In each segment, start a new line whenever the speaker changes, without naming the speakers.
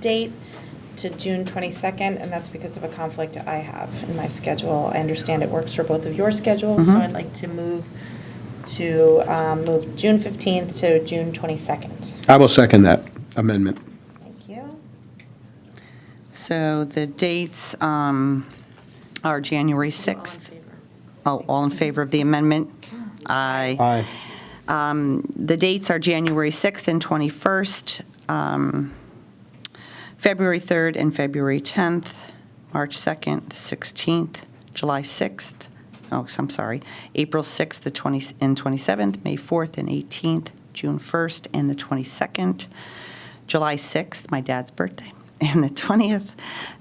date to June 22nd, and that's because of a conflict I have in my schedule. I understand it works for both of your schedules, so
Mhm.
I'd like to move to, um, move June 15th to June 22nd.
I will second that amendment.
Thank you.
So the dates um, are January 6th. Oh, all in favor of the amendment? Aye.
Aye.
The dates are January 6th and 21st, um, February 3rd and February 10th, March 2nd, the 16th, July 6th, oh, I'm sorry, April 6th the 20 and 27th, May 4th and 18th, June 1st and the 22nd, July 6th, my dad's birthday, and the 20th,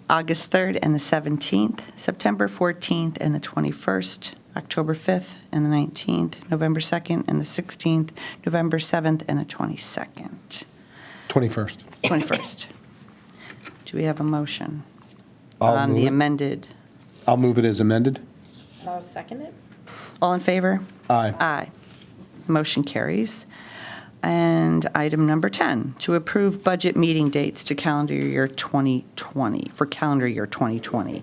August 3rd and the 17th, September 14th and the 21st, October 5th and the 19th, November 2nd and the 16th, November 7th and the 22nd,
21st.
21st. Do we have a motion
I'll
on
move
the
it.
amended?
I'll move it as amended.
I'll second it.
All in favor?
Aye.
Aye. Motion carries. And item number 10, to approve budget meeting dates to calendar year 2020, for calendar year 2020.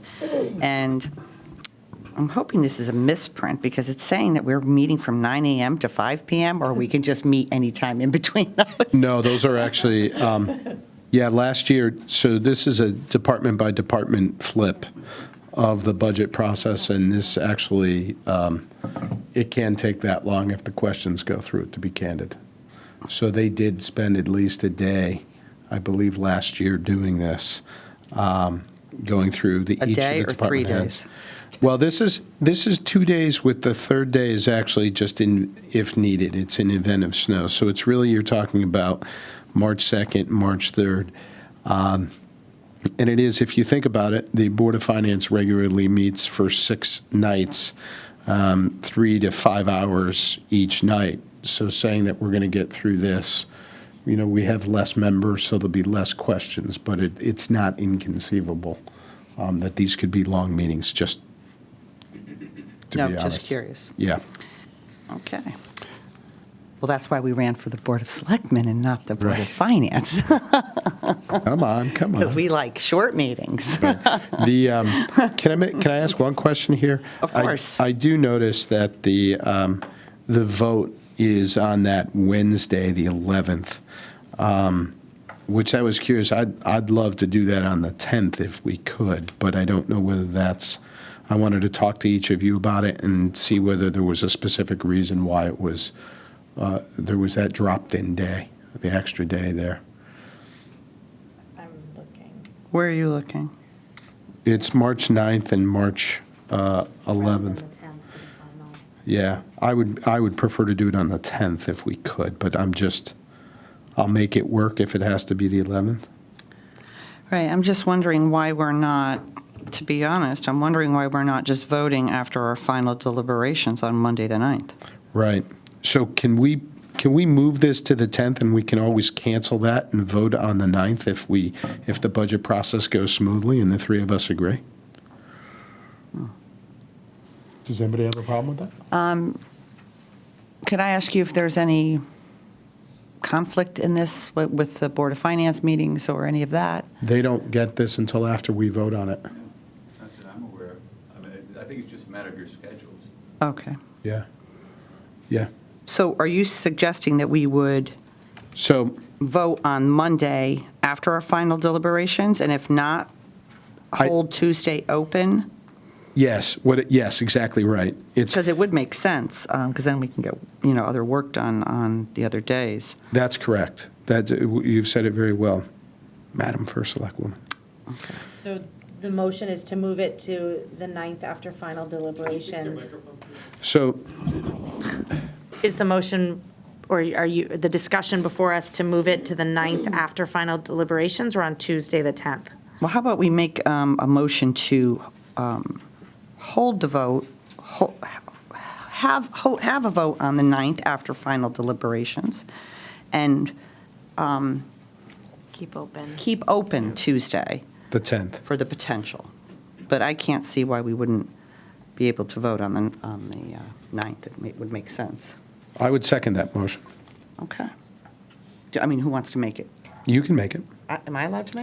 And I'm hoping this is a misprint because it's saying that we're meeting from 9 AM to 5 PM, or we can just meet anytime in between those.
No, those are actually, um, yeah, last year, so this is a department-by-department flip of the budget process, and this actually, um, it can take that long if the questions go through it, to be candid. So they did spend at least a day, I believe, last year doing this, um, going through the, each
A
of the
day or three
department heads.
days?
Well, this is, this is two days with the third day is actually just in, if needed, it's an event of snow. So it's really, you're talking about March 2nd, March 3rd. Um, And it is, if you think about it, the Board of Finance regularly meets for six nights, um, three to five hours each night. So saying that we're going to get through this, you know, we have less members, so there'll be less questions, but it, it's not inconceivable um, that these could be long meetings, just to be
No,
honest.
just curious.
Yeah.
Okay. Well, that's why we ran for the Board of Selectmen and not the Board
Right.
of Finance,
Come on, come on.
because we like short meetings.
The, um, can I, ma- can I ask one question here?
Of
I-
course.
I do notice that the, um, the vote is on that Wednesday, the 11th, um, which I was curious, I'd, I'd love to do that on the 10th if we could, but I don't know whether that's, I wanted to talk to each of you about it and see whether there was a specific reason why it was, uh, there was that dropped-in day, the extra day there.
I'm looking.
Where are you looking?
It's March 9th and March uh, 11th. Yeah, I would, I would prefer to do it on the 10th if we could, but I'm just, I'll make it work if it has to be the 11th.
Right, I'm just wondering why we're not, to be honest, I'm wondering why we're not just voting after our final deliberations on Monday, the 9th.
Right. So can we, can we move this to the 10th and we can always cancel that and vote on the 9th if we, if the budget process goes smoothly and the three of us agree?
Does anybody have a problem with that?
Could I ask you if there's any conflict in this wi- with the Board of Finance meetings or any of that?
They don't get this until after we vote on it.
Not that I'm aware of. I mean, I think it's just a matter of your schedules.
Okay.
Yeah. Yeah.
So are you suggesting that we would
So
vote on Monday after our final deliberations? And if not,
I-
hold Tuesday open?
Yes, what, it- yes, exactly right. It's,
Because it would make sense, because then we can get, you know, other work done on the other days.
that's correct. That's, you've said it very well, Madam First Selectwoman.
So the motion is to move it to the 9th after final deliberations.
So,
Is the motion, or are you, the discussion before us to move it to the 9th after final deliberations or on Tuesday, the 10th?
Well, how about we make um, a motion to um, hold the vote, ho- have, ho- have a vote on the 9th after final deliberations, and
Keep open.
keep open Tuesday
the 10th.
for the potential. But I can't see why we wouldn't be able to vote on the, on the uh, 9th. It ma- would make sense.
I would second that motion.
Okay. Do- I mean, who wants to make it?
You can make it.
I- Am I allowed to make it?